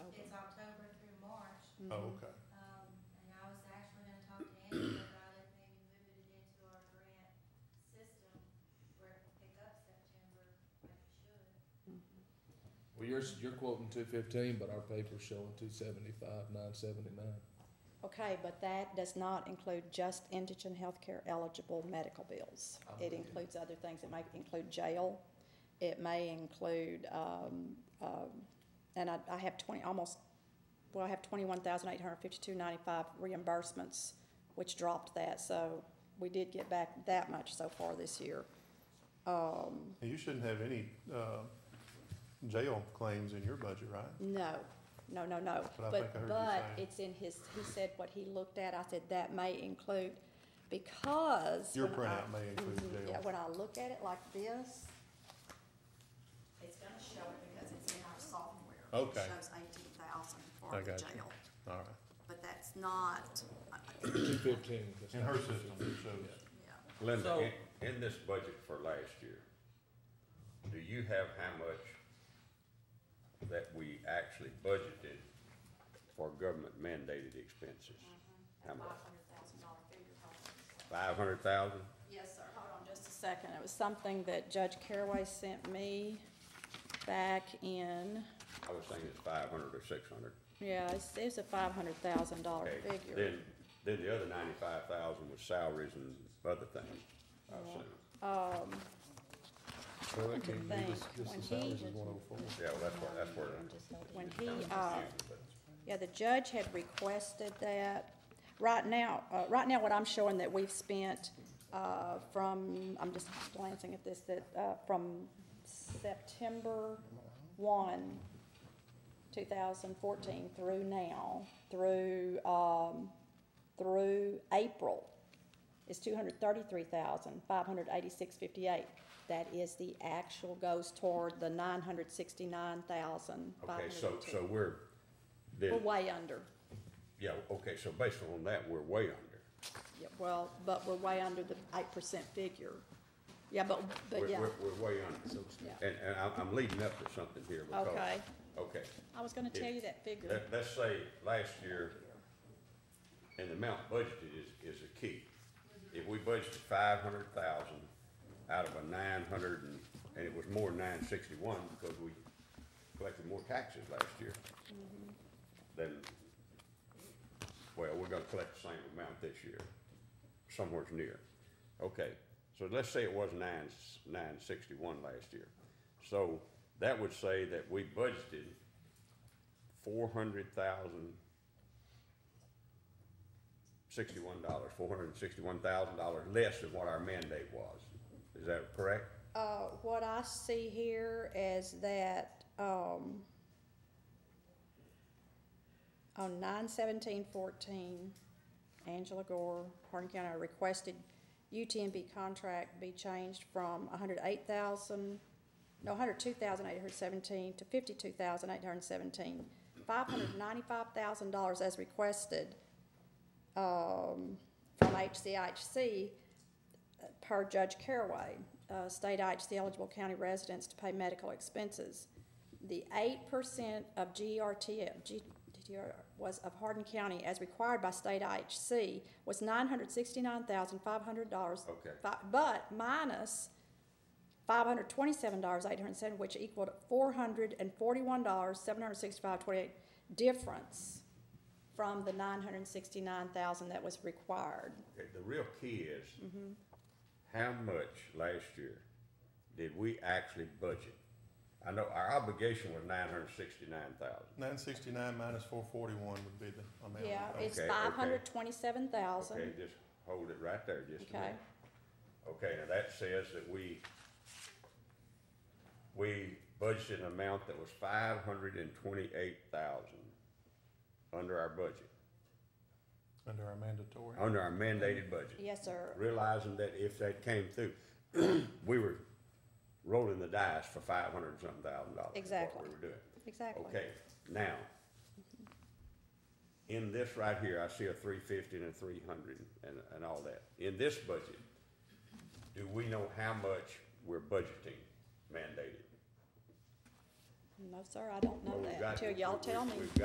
Mm-hmm. Mm-hmm. Oh, okay. Um, and I was actually gonna talk to Angela about it, maybe moving it into our grant system where it can pick up September like it should. Mm-hmm. Well, you're, you're quoting two fifteen, but our paper's showing two seventy-five, nine seventy-nine. Okay, but that does not include just indigent healthcare eligible medical bills. I'm It with you. includes other things. It may include jail. It may include, um, um, and I, I have twenty, almost, well, I have twenty-one thousand eight hundred fifty-two ninety-five reimbursements, which dropped that, so we did get back that much so far this year. Um, And you shouldn't have any, uh, jail claims in your budget, right? No, no, no, no. But I think I But, heard you but saying. it's in his, he said what he looked at, I said that may include, because. Your when I- printout may include Mhm, Yeah, jail. when I look at it like this, It's gonna show it because it's in our software. Okay. It shows eighteen thousand for I the got you. jail, All right. but that's not, I- I- Two fifteen. In her system, it shows. yeah. Linda, So- in, in this budget for last year, do you have how much that we actually budgeted for government mandated expenses? Mm-hmm. How much? Five hundred thousand dollar figure, probably. Five hundred thousand? Yes, sir, hold on just a just a second, it was something that Judge Caraway sent me back in, I was thinking it's five hundred or six hundred. yeah, it's- it was a five hundred thousand dollar Okay, figure. then, then the other ninety-five thousand was salaries and other things, I assume. Well, it can can't be be think just, just- just the when the he- salaries salaries is is one oh four. Yeah, well, that's what, that's where. When he, I'm confused, uh, but- Yeah, the judge had requested that. Right now, uh, right now, what I'm showing that we've spent, uh, from, I'm just glancing at this, that, uh, from September one, two thousand fourteen through now, through, um, through April, is two hundred thirty-three thousand, five hundred eighty-six fifty-eight. That is the actual goes toward the nine hundred sixty-nine thousand, five Okay, hundred so, and two. so we're, then. We're way under. Yeah, okay, so based on that, we're way under. Yeah, well, but we're way under the eight percent figure. Yeah, but, but We're- yeah, We're, we're way under. Yeah. And, and I'm, I'm leading up to something here because. Okay. Okay, I was gonna tell you that figure. let, let's say last year, and the amount budgeted is, is a key. If we budgeted five hundred thousand out of a nine hundred and, and it was more than nine sixty-one because we collected more taxes last year. Then, well, we're gonna collect the same amount this year, somewhere's near. Okay, so let's say it was nine, nine sixty-one last year. So that would say that we budgeted four hundred thousand sixty-one dollars, four hundred and sixty-one thousand dollars less than what our mandate was. Is that correct? Uh, what I see here is that, um, on nine seventeen fourteen, Angela Gore, Hardin County requested UTMB contract be changed from hundred eight thousand, no, hundred two thousand eight hundred seventeen to fifty-two thousand eight hundred seventeen. Five hundred ninety-five thousand dollars as requested, um, from HCHC uh, per Judge Caraway, uh, state IHC eligible county residents to pay medical expenses. The eight percent of GRT, of G- GTR was of Hardin County as required by state IHC was nine hundred sixty-nine thousand five hundred dollars. Okay. But minus five hundred twenty-seven dollars eight hundred seven, which equaled four hundred and forty-one dollars seven hundred sixty-five twenty-eight difference from the nine hundred sixty-nine thousand that was required. Okay, The real key is, how much last year did we actually budget? I know our obligation was nine hundred sixty-nine thousand. Nine sixty-nine minus four forty-one would be the amount. Yeah, it's Okay, okay. five hundred twenty-seven Okay, thousand. just hold it right there just a Okay. minute. Okay, now that says that we, we budgeted an amount that was five hundred and twenty-eight thousand under our budget, Under our mandatory. under our mandated budget. Yes, sir. Realizing that if that came through, we were rolling the dice for five hundred and something thousand dollars. is What Exactly. we were doing. Exactly. Okay, now, in this right here, I see a three fifty and a three hundred and, and all that. In this budget, do we know how much we're budgeting mandated? No, sir, I don't Well, know we've that got- until y'all we've- tell me. we've got